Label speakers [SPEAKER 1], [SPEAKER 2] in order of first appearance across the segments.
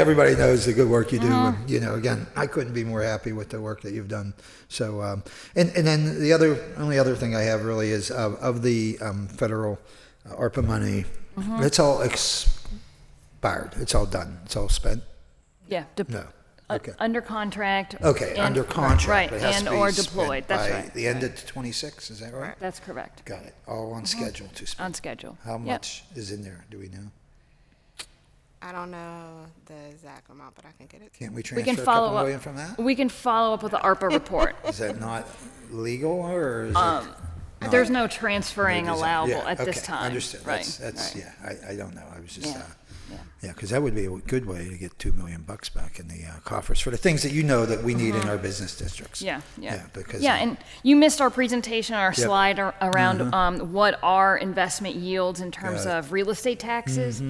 [SPEAKER 1] Everybody knows the good work you do.
[SPEAKER 2] Uh-huh.
[SPEAKER 1] and, You know, again, I couldn't be more happy with the work that you've done. So, um, and and then the other only other thing I have really is of, of the um, federal ARPA money.
[SPEAKER 2] Uh-huh.
[SPEAKER 1] It's all expired. It's all done. It's all spent.
[SPEAKER 2] Yeah. de-
[SPEAKER 1] No.
[SPEAKER 2] uh,
[SPEAKER 1] Okay.
[SPEAKER 2] Under contract.
[SPEAKER 1] Okay.
[SPEAKER 2] and-
[SPEAKER 1] under contract.
[SPEAKER 2] Right,
[SPEAKER 1] it has
[SPEAKER 2] and
[SPEAKER 1] to be
[SPEAKER 2] or
[SPEAKER 1] spent
[SPEAKER 2] deployed, that's
[SPEAKER 1] by
[SPEAKER 2] right. Uh-huh.
[SPEAKER 1] The end of 26. Is that right?
[SPEAKER 2] That's correct,
[SPEAKER 1] Got it. All on schedule to spend.
[SPEAKER 2] on schedule.
[SPEAKER 1] How
[SPEAKER 2] Uh, Yep.
[SPEAKER 1] much is in there? Do we know?
[SPEAKER 3] I don't know the exact amount, but I can get it.
[SPEAKER 1] Can't we
[SPEAKER 2] We
[SPEAKER 1] transfer
[SPEAKER 2] can
[SPEAKER 1] a couple
[SPEAKER 2] follow
[SPEAKER 1] million
[SPEAKER 2] up.
[SPEAKER 1] from that?
[SPEAKER 2] We can follow up with the ARPA report.
[SPEAKER 1] Is that not legal or is it?
[SPEAKER 2] There's no transferring
[SPEAKER 1] Design.
[SPEAKER 2] allowable
[SPEAKER 1] Yeah,
[SPEAKER 2] at this
[SPEAKER 1] okay,
[SPEAKER 2] time.
[SPEAKER 1] Understood.
[SPEAKER 2] Right,
[SPEAKER 1] That's, that's,
[SPEAKER 2] right.
[SPEAKER 1] yeah, I, I don't know. I was just,
[SPEAKER 2] Yeah,
[SPEAKER 1] uh,
[SPEAKER 2] yeah.
[SPEAKER 1] yeah, because that would be a good way to get two million bucks back in the uh, coffers for the things that you know that we need in our business districts.
[SPEAKER 2] Mm-hmm. Yeah, yeah.
[SPEAKER 1] Yeah, because.
[SPEAKER 2] Yeah,
[SPEAKER 1] uh,
[SPEAKER 2] and you missed our presentation, our slide ar- around um, what our investment yields in terms
[SPEAKER 1] Mm-hmm. Got it. Mm-hmm.
[SPEAKER 2] of real estate taxes.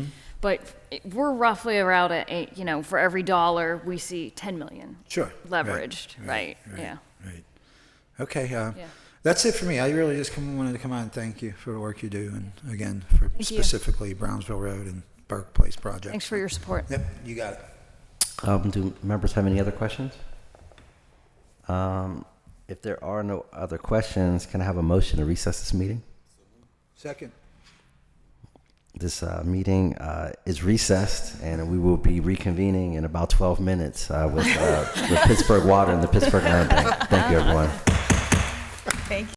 [SPEAKER 2] But it- we're roughly around a, a- you know, for every dollar, we see 10 million.
[SPEAKER 1] Sure. right,
[SPEAKER 2] Leveraged, right, yeah.
[SPEAKER 1] Right. Okay, uh,
[SPEAKER 2] Yeah.
[SPEAKER 1] that's it for me. I really just come, wanted to come on and thank you for the work you do and again, for
[SPEAKER 2] you.
[SPEAKER 1] specifically Brownsville Road and Burke Place Project.
[SPEAKER 2] Thanks for your support.
[SPEAKER 1] Yep, you got it.
[SPEAKER 4] Um, do members have any other questions? Um, if there are no other questions, can I have a motion to recess this meeting?
[SPEAKER 1] Second.
[SPEAKER 4] This uh, meeting uh, is recessed, and we will be reconvening in about 12 minutes uh, with, uh, with Pittsburgh Water and the Pittsburgh Land Bank. Thank you, everyone.